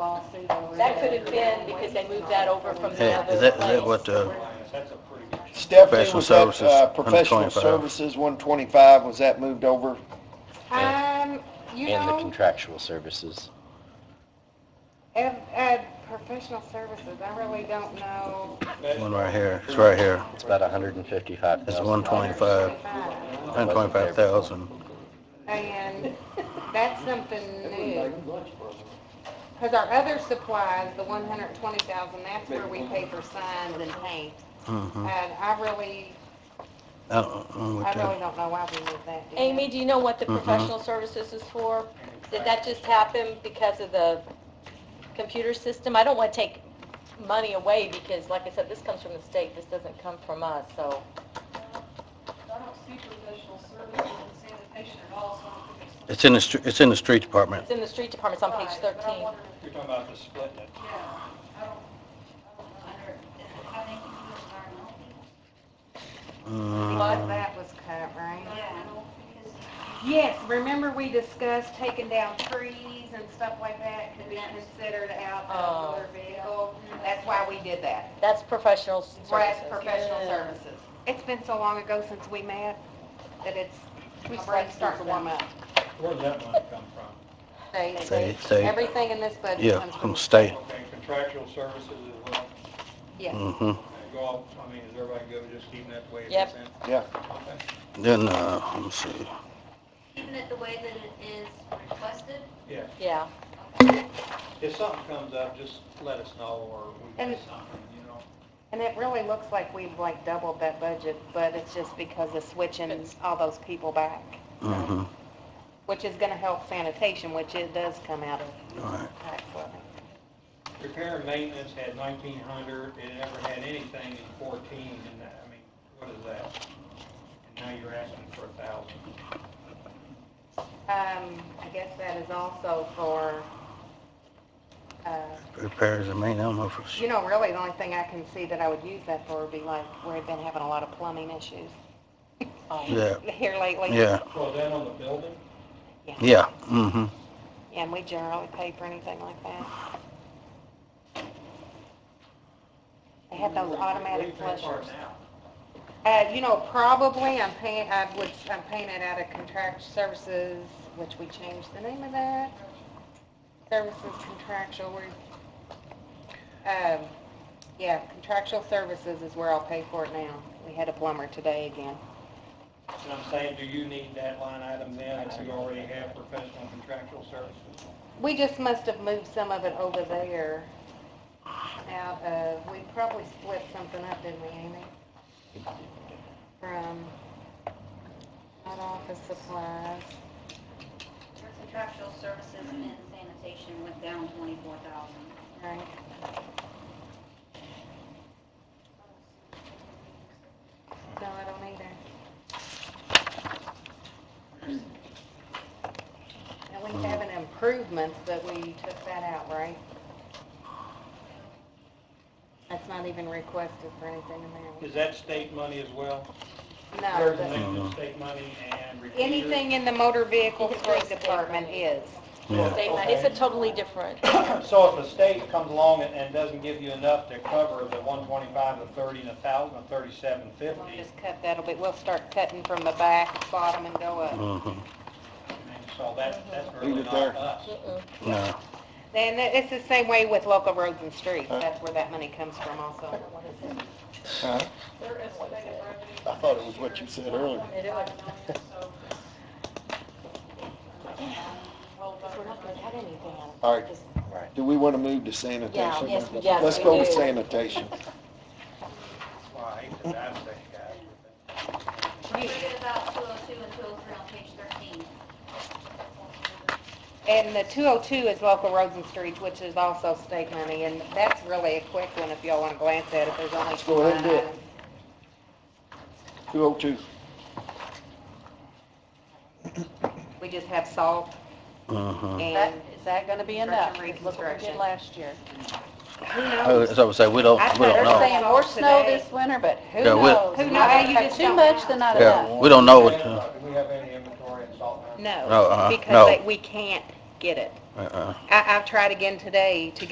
lawsuit over. That there. could have been because they moved that over from the Yeah, other is that, is that what place. the, Stephanie, Professional was that, services, uh, professional 125. services, one twenty-five, was that moved over? Um, you and the know, contractual services. ev- uh, professional services, I really don't know. one right here, it's right here, It's about 155,000. it's one twenty-five, one twenty-five thousand. And that's something new. Because our other supplies, the one hundred twenty thousand, that's where we pay for signs and paint. Mm-hmm, And I really, I don't know I what really that, don't know why we moved that. did we? Amy, do you know what the Mhm. professional services is for? Did that just happen because of the computer system? I don't want to take money away because, like I said, this comes from the state, this doesn't come from us, so. I don't see professional services and sanitation at all, so I don't think it's. it's in the, str- it's in the street department. It's in the street department, it's on page Right, but I'm 13. wondering if- You're talking about the split it. Yeah, I don't, I don't know. Under, is it how they can do environmental people? A Mm, lot of that was cut, right? Yeah, because Yes, remember we discussed taking down trees and stuff like that could be considered out Oh. of motor vehicle? That's why we did that. That's professional That's services. professional services. It's been so long ago since we met that it's, my brain's starting to warm up. Where did that money come from? They- Say, say, Everything in this budget yeah, comes from from, the state, Okay, contractual services as well, yes. mm-hmm. And go off, I mean, is everybody good with just keeping that the way it Yep. is? then? Yeah. Okay. Then, uh, let me see, keeping it the way that it is requested, Yeah, Yeah, if something comes up, just let us know, or we And- can something, you know? And it really looks like we've like doubled that budget, but it's just because of switching all those people back, mm-hmm, which is gonna help sanitation, which it does come out of all right. tax levy. Repair and maintenance had nineteen hundred, it never had anything in fourteen, and that, I mean, what is that? And now you're asking for a thousand. Um, I guess that is also for, uh, Repairs, I mean, I don't know if it's, you know, really the only thing I can see that I would use that for would be like, we've been having a lot of plumbing issues yeah, here lately. yeah, Well, then on the building? yeah, mm-hmm. And we generally pay for anything like that. They had those automatic flushers. Uh, you know, probably, I'm paying, I would, I'm paying it out of contract services, which we changed the name of that. Services contractual, we, um, yeah, contractual services is where I'll pay for it now. We had a plumber today again. And I'm saying, do you need that line item then, if you already have professional contractual services? We just must have moved some of it over there out uh, of, we probably split something up, didn't we, Amy? From, not office supplies. your contractual services and sanitation went down twenty-four thousand. Right. No, I don't either. And we have an improvement, but we took that out, right? That's not even requested for anything in Is that state money as well? there. No, There's a but mix Uh-huh. of state money and repeater. anything in the motor vehicle fleet department is. Yeah. State money. Mm-hmm. it's a totally different, So if the state comes along and- and doesn't give you enough to cover the one twenty-five, the thirty, and a thousand, and thirty-seven We'll fifty, just cut that a bit, we'll start cutting from the back, bottom, and go up. Mm-hmm, so that, Mm-hmm. that's really Leave it not there. us. Mm-mm. no, And it- it's the same way with local roads and streets, that's where that money comes from also. Huh? Their estimated revenue. I thought it was what you said earlier. It is. So because we're not going to cut anything out of All right, Just- do we want to move to sanitation? yes, yes, Let's we go with do. sanitation. Well, I hate to dive that guy, but Forget about two oh two and two oh three on page thirteen. And the 202 is local roads and streets, which is also state money, and that's really a quick one if y'all want to glance at it, there's only two Go ahead and line do it. items. Two oh two. We just have salt mm-hmm. That, and, is that going to be enough? Construction, Look what we reconstruction. did last year. who knows? As I would say, we don't, I'd we don't rather They're know. saying more snow this winter, but who Yeah, we- knows? Who knows? Not- You just Too don't much know. than not Yeah, enough. we Oh, don't know what, Do we have any inventory in Salt Mountain? No, uh, No, uh-uh, because no. they- we can't get it. Uh-uh. I, I've tried again today to get